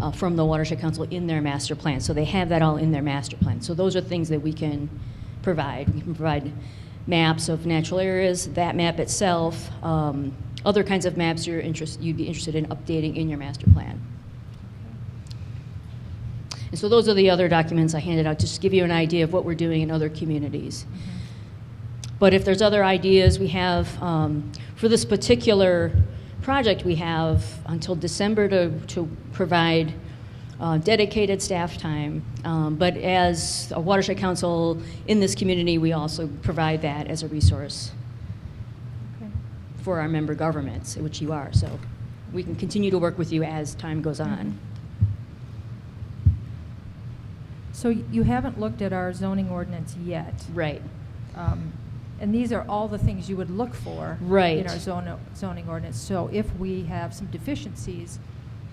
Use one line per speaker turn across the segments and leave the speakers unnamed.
uh, from the Watershed Council in their master plan. So they have that all in their master plan. So those are things that we can provide. We can provide maps of natural areas, that map itself, um, other kinds of maps you're interest, you'd be interested in updating in your master plan. And so those are the other documents I handed out, just to give you an idea of what we're doing in other communities. But if there's other ideas, we have, um, for this particular project, we have until December to, to provide uh, dedicated staff time. Um, but as a watershed council in this community, we also provide that as a resource
Okay.
for our member governments, which you are. So we can continue to work with you as time goes on.
So y- you haven't looked at our zoning ordinance yet.
Right.
Um, And these are all the things you would look for.
Right.
In our zone- zoning ordinance. So if we have some deficiencies,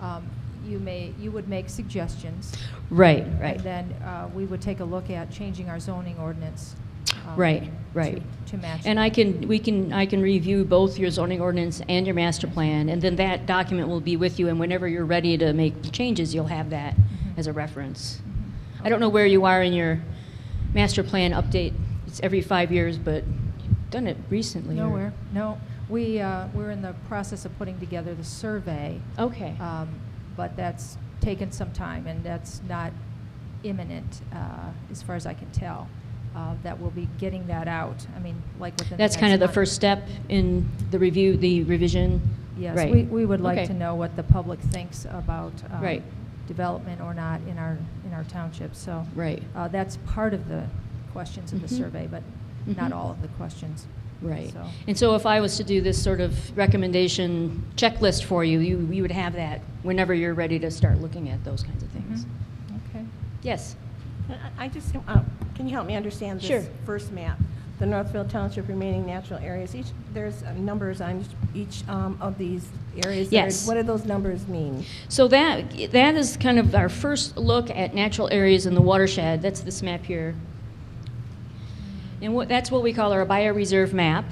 um, you may, you would make suggestions.
Right, right.
And then uh, we would take a look at changing our zoning ordinance. um,
Right, right.
to- To match.
And
that.
I can, we can, I can review both your zoning ordinance and your master plan, and then that document will be with you, and whenever you're ready to make changes, you'll have that as a reference.
Mhm.
I don't know where you are in your master plan update, it's every five years, but you've done it recently. or-
Nowhere, no. We, uh, we're in the process of putting together the survey.
Okay,
Um, But that's taken some time, and that's not imminent, uh, as far as I can tell, uh, that we'll be getting that out. I mean, like within the
that's kind of
next
the
month.
first step in the review, the revision?
Yes,
Right.
we, we would like
Okay.
to know what the public thinks about um,
Right.
development or not in our, in our township, so.
Right.
uh, That's part of the questions of the
Mhm.
survey, but not
Mhm.
all of the questions.
Right.
So-
And so if I was to do this sort of recommendation checklist for you, you, you would have that whenever you're ready to start looking at those kinds of things.
Mhm. Okay.
Yes.
I- I just, uh, can you help me understand
Sure.
this first map? The Northfield Township remaining natural areas, each, there's uh, numbers on each um, of these areas. that are-
Yes.
What do those numbers mean?
So that, that is kind of our first look at natural areas in the watershed. That's this map here. And what, that's what we call our bioreserve map.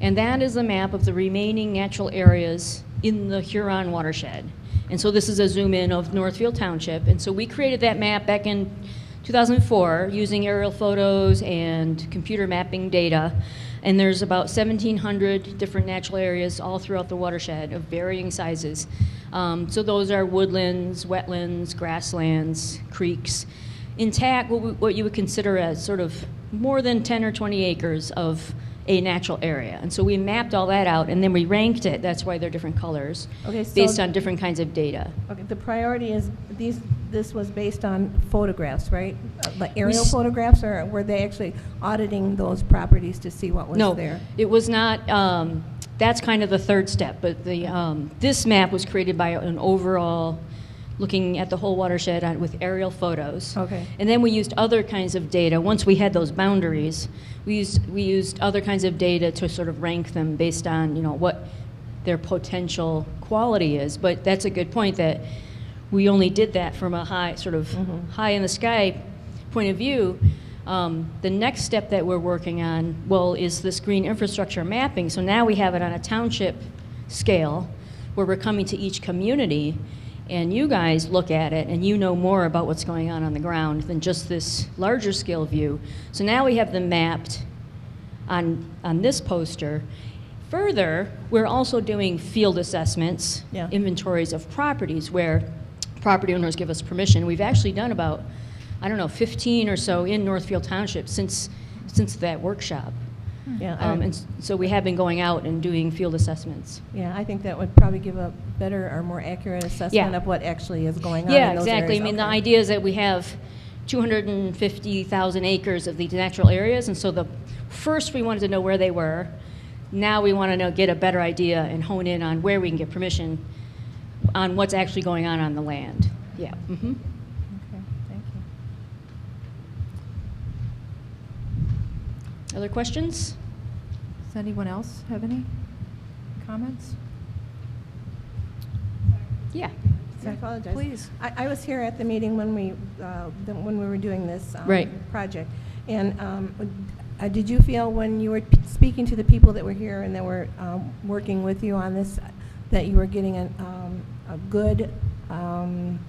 And that is a map of the remaining natural areas in the Huron watershed. And so this is a zoom in of Northfield Township. And so we created that map back in 2004 using aerial photos and computer mapping data. And there's about 1,700 different natural areas all throughout the watershed of varying sizes. Um, so those are woodlands, wetlands, grasslands, creeks intact what, we, what you would consider as sort of more than 10 or 20 acres of a natural area. And so we mapped all that out and then we ranked it. That's why they're different colors
Okay, so-
based on different kinds of data.
Okay, the priority is, these, this was based on photographs, right? Uh, Like aerial
s-
photographs, or were they actually auditing those properties to see what was
no,
there?
it was not. Um, that's kind of the third step. But the, um, this map was created by an overall looking at the whole watershed on, with aerial photos.
Okay.
And then we used other kinds of data. Once we had those boundaries, we used, we used other kinds of data to sort of rank them based on, you know, what their potential quality is. But that's a good point that we only did that from a high, sort of high in the sky point of view. Um, the next step that we're working on, well, is this green infrastructure mapping. So now we have it on a township scale where we're coming to each community and you guys look at it and you know more about what's going on on the ground than just this larger scale view. So now we have them mapped on, on this poster. Further, we're also doing field assessments,
Yeah.
inventories of properties where property owners give us permission. We've actually done about, I don't know, 15 or so in Northfield Township since, since that workshop.
Yeah, I-
Um, and s- so we have been going out and doing field assessments.
yeah, I think that would probably give a better or more accurate assessment
Yeah.
of what actually is going on
Yeah,
in those areas.
exactly. I mean, the
Okay.
idea is that we have 250,000 acres of these natural areas, and so the, first we wanted to know where they were. Now we want to know, get a better idea and hone in on where we can get permission on what's actually going on on the land. Yeah. hmm
Okay, thank you.
Other questions?
Does anyone else have any comments?
Yeah.
I apologize.
Please.
I, I was here at the meeting when we, uh, the- when we were doing this. um,
Right.
Project. And um, uh, did you feel when you were p- speaking to the people that were here and that were um, working with you on this, that you were getting a, um, a good um,